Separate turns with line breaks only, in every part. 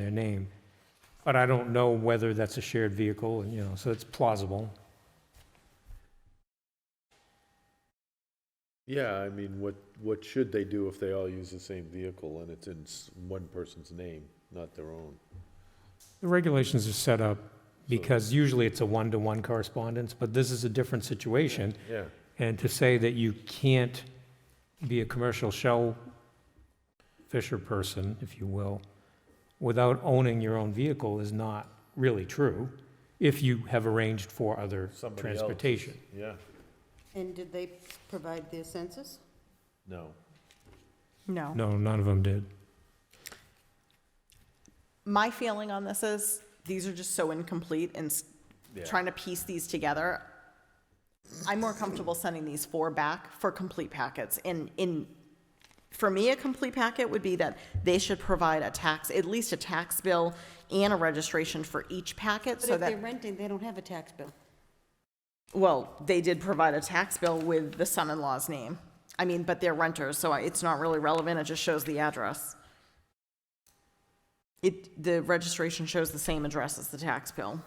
their name. But I don't know whether that's a shared vehicle, and, you know, so it's plausible.
Yeah, I mean, what, what should they do if they all use the same vehicle and it's in s- one person's name, not their own?
The regulations are set up because usually it's a one-to-one correspondence, but this is a different situation.
Yeah,
And to say that you can't be a commercial shell fisher person, if you will, without owning your own vehicle is not really true if you have arranged for other
Somebody else's.
transportation.
yeah,
And did they provide their census?
no.
No.
No, none of them did.
My feeling on this is, these are just so incomplete and s-
Yeah.
trying to piece these together. I'm more comfortable sending these four back for complete packets. And in, for me, a complete packet would be that they should provide a tax, at least a tax bill and a registration for each packet
But
so
if they're
that,
renting, they don't have a tax bill.
well, they did provide a tax bill with the son-in-law's name. I mean, but they're renters, so I- it's not really relevant. It just shows the address. It, the registration shows the same address as the tax bill.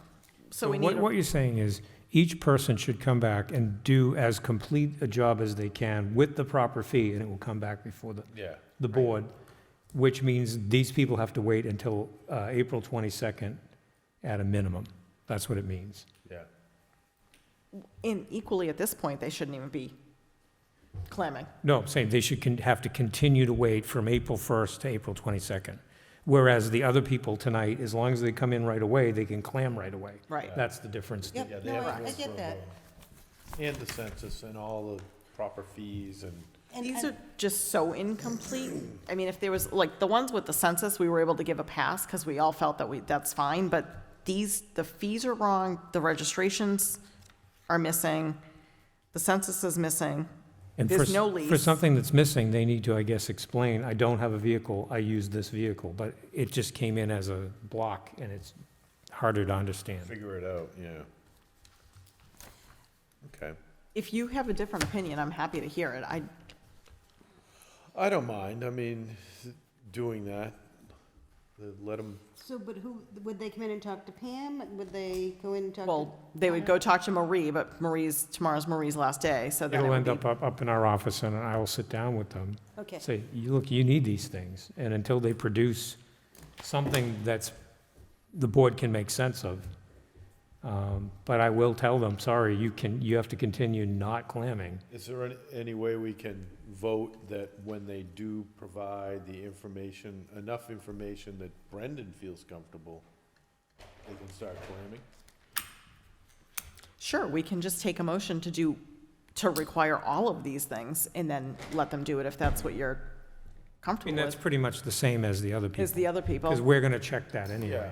So we
what,
need,
what
a-
you're saying is each person should come back and do as complete a job as they can with the proper fee, and it will come back before the,
Yeah.
the board, which means these people have to wait until uh, April 22nd at a minimum. That's what it means.
Yeah.
and equally at this point, they shouldn't even be clamming.
No, I'm saying they should con- have to continue to wait from April 1st to April 22nd. Whereas the other people tonight, as long as they come in right away, they can clam right away.
Right.
That's the difference.
Yeah,
Yep,
they
no,
have
I
to
I
go through
get that.
all- And the census and all the proper fees and,
And-
These
and-
are just so incomplete. I mean, if there was, like, the ones with the census, we were able to give a pass because we all felt that we, that's fine, but these, the fees are wrong, the registrations are missing, the census is missing.
And for
There's
s-
no
For
lease.
something that's missing, they need to, I guess, explain, I don't have a vehicle, I use this vehicle, but it just came in as a block and it's harder to understand.
figure it out, yeah. Okay.
If you have a different opinion, I'm happy to hear it. I,
I don't mind, I mean, doing that, let them,
So, but who, would they come in and talk to Pam? Would they go in and talk to?
well, they would go talk to Marie, but Marie's, tomorrow's Marie's last day, so then it
It'll
would
end
be.
up, up, up in our office and I will sit down with them.
Okay,
Say, "You- look, you need these things, and until they produce something that's, the board can make sense of. Um, But I will tell them, sorry, you can, you have to continue not clamming.
is there any, any way we can vote that when they do provide the information, enough information that Brendan feels comfortable, they can start claiming?
Sure, we can just take a motion to do, to require all of these things and then let them do it if that's what
I
you're
mean,
comfortable
that's
with.
pretty much the same as the other people.
Is the other
Because
people,
we're going to check that anyway.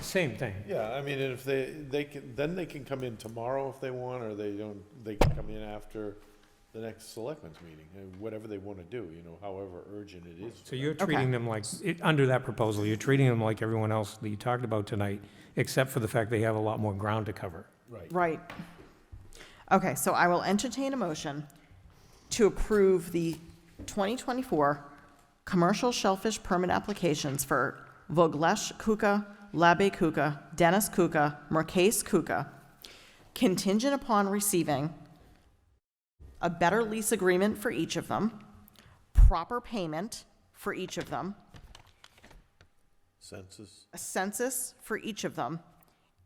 Same thing.
Yeah, I mean, and if they, they can, then they can come in tomorrow if they want, or they don't, they can come in after the next selectmen's meeting, and whatever they wanna do, you know, however urgent it is.
So you're
Okay.
treating them like, it- under that proposal, you're treating them like everyone else that you talked about tonight, except for the fact they have a lot more ground to cover.
Right.
right. Okay, so I will entertain a motion to approve the 2024 commercial shellfish permit applications for Voglesh Kuka, Labe Kuka, Dennis Kuka, Mercase Kuka, contingent upon receiving a better lease agreement for each of them, proper payment for each of them,
Census,
a census for each of them,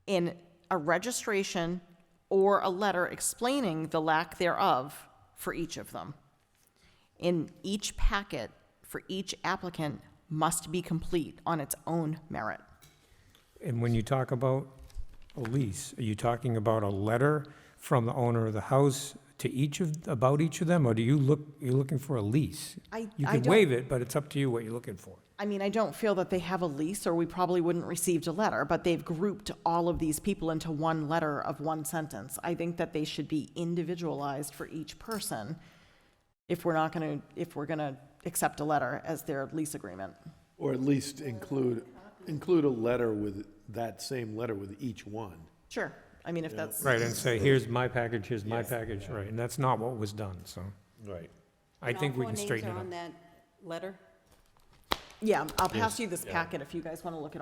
and a registration or a letter explaining the lack thereof for each of them. In each packet for each applicant must be complete on its own merit.
And when you talk about a lease, are you talking about a letter from the owner of the house to each of, about each of them? Or do you look, you're looking for a lease?
I-
You
I
can
don't-
waive it, but it's up to you what you're looking for.
I mean, I don't feel that they have a lease, or we probably wouldn't received a letter, but they've grouped all of these people into one letter of one sentence. I think that they should be individualized for each person if we're not gonna, if we're gonna accept a letter as their lease agreement.
or at least include, include a letter with, that same letter with each one.
Sure, I mean, if that's,
Right, and say, here's my package, here's my package, right, and that's not what was done, so
Right.
I think we can
And all four names
straighten
are
it up.
on that letter?
Yeah, I'll pass
Yes.
you this
Yeah.
packet if you guys want to look at